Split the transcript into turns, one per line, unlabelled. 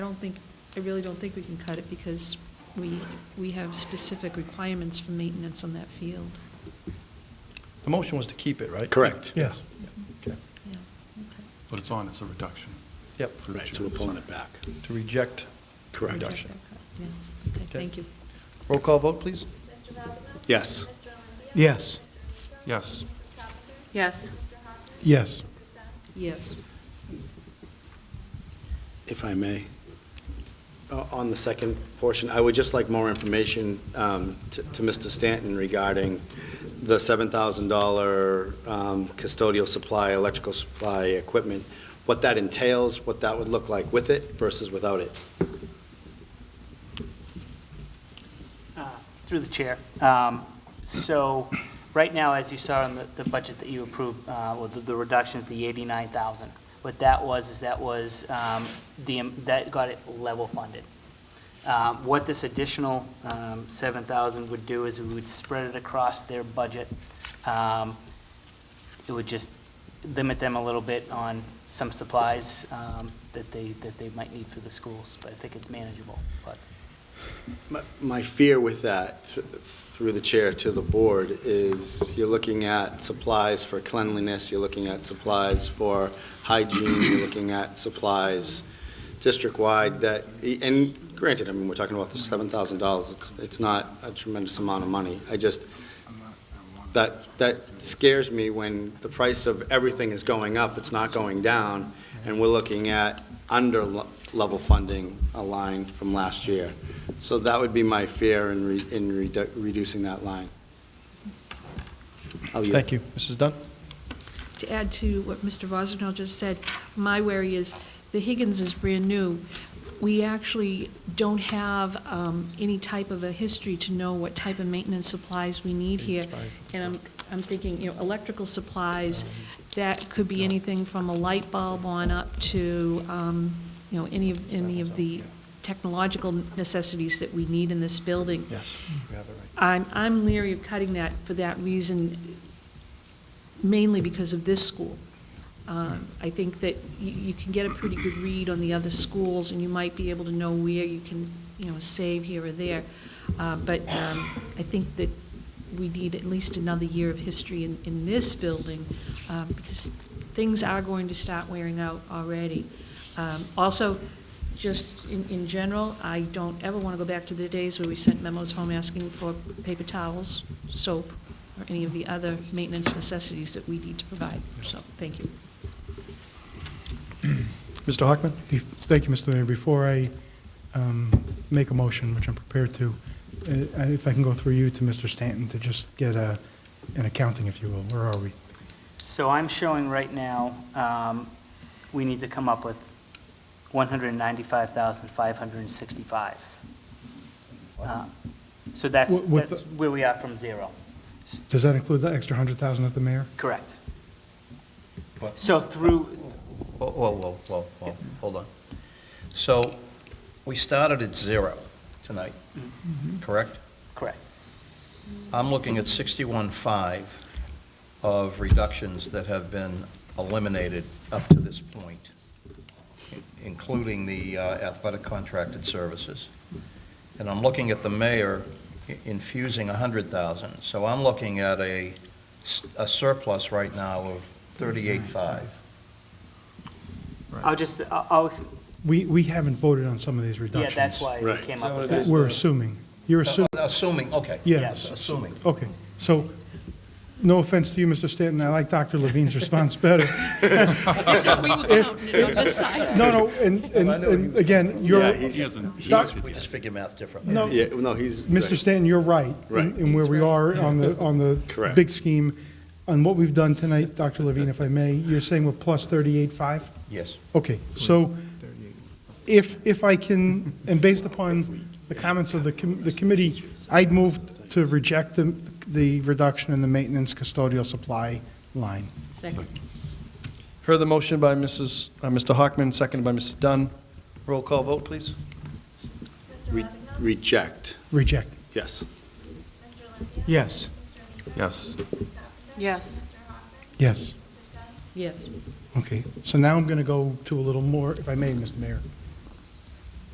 don't think, I really don't think we can cut it because we, we have specific requirements for maintenance on that field.
The motion was to keep it, right?
Correct.
Yes.
Okay.
Yeah, okay.
But it's on, it's a reduction.
Yep,
Right, so we're pulling it back.
to reject.
Correct.
Reduction.
Reject that cut. Yeah, okay,
Okay.
thank you.
Roll call vote, please.
Yes.
Yes.
Yes,
Yes.
Yes.
Yes.
If I may, o- on the second portion, I would just like more information um, to to Mr. Stanton regarding the $7,000 um, custodial supply, electrical supply, equipment, what that entails, what that would look like with it versus without it.
Uh, Through the chair. Um, So, right now, as you saw in the- the budget that you approved, uh, with the- the reductions, the 89,000, what that was, is that was, um, the that got it level funded. Um, What this additional um, 7,000 would do is we would spread it across their budget. Um, It would just limit them a little bit on some supplies um, that they, that they might need for the schools, but I think it's manageable, but.
My- My fear with that, th- through the chair to the board, is you're looking at supplies for cleanliness, you're looking at supplies for hygiene, you're looking at supplies district-wide that, and granted, I mean, we're talking about the $7,000, it's, it's not a tremendous amount of money. I just, that, that scares me when the price of everything is going up, it's not going down, and we're looking at under-level funding a line from last year. So that would be my fear in, re- in redu- reducing that line. I'll yield.
Thank you. Mrs. Dunn?
To add to what Mr. Vosinell just said, my worry is, the Higgins is brand new. We actually don't have um, any type of a history to know what type of maintenance supplies we need here. And I'm, I'm thinking, you know, electrical supplies, that could be anything from a light bulb on up to, um, you know, any of, any of the technological necessities that we need in this building.
Yes. You have it right.
I'm, I'm leery of cutting that for that reason, mainly because of this school. Um, I think that you, you can get a pretty good read on the other schools, and you might be able to know where you can, you know, save here or there. Uh, But um, I think that we need at least another year of history in, in this building, uh, because things are going to start wearing out already. Um, Also, just in, in general, I don't ever want to go back to the days where we sent memos home asking for paper towels, soap, or any of the other maintenance necessities that we need to provide. So, thank you.
Mr. Hockman?
Be- Thank you, Mr. Mayor. Before I um, make a motion, which I'm prepared to, uh, if I can go through you to Mr. Stanton to just get a, an accounting, if you will. Where are we?
So I'm showing right now, um, we need to come up with 195,565. Uh, So that's,
Wi- with
that's
the-
where we are from zero.
Does that include the extra 100,000 that the mayor?
Correct.
But-
So through,
Whoa, whoa, whoa, whoa, whoa, hold on. So, we started at zero tonight, correct?
correct,
I'm looking at 61.5 of reductions that have been eliminated up to this point, including the uh, athletic contracted services. And I'm looking at the mayor i- infusing 100,000. So I'm looking at a s- a surplus right now of 38.5.
I'll just, I'll- I'll,
We, we haven't voted on some of these
yeah,
reductions.
that's why we
Right.
came up with
That
that.
We're assuming. You're assuming,
Assuming, okay.
Yes.
Assuming.
okay. So, no offense to you, Mr. Stanton, I like Dr. Levine's response better.
We were counting it on this side.
No, no, and, and- and again, you're,
Yeah, he's-
he hasn't, he
Doc-
hasn't
We just figure math differently.
no,
Yeah, no, he's.
Mr. Stanton, you're right. in-
Right.
In where we are on the, on the
Correct.
big scheme. On what we've done tonight, Dr. Levine, if I may, you're saying we're plus 38.5?
Yes.
Okay, so if, if I can, and based upon the comments of the, com- the committee, I'd move to reject the, the reduction in the maintenance custodial supply line.
Second.
Heard the motion by Mrs., uh, Mr. Hockman, seconded by Mrs. Dunn. Roll call vote, please.
Re- Reject,
Reject.
yes.
Yes.
yes.
Yes.
Yes.
Yes.
Okay, so now I'm going to go to a little more, if I may, Mr. Mayor.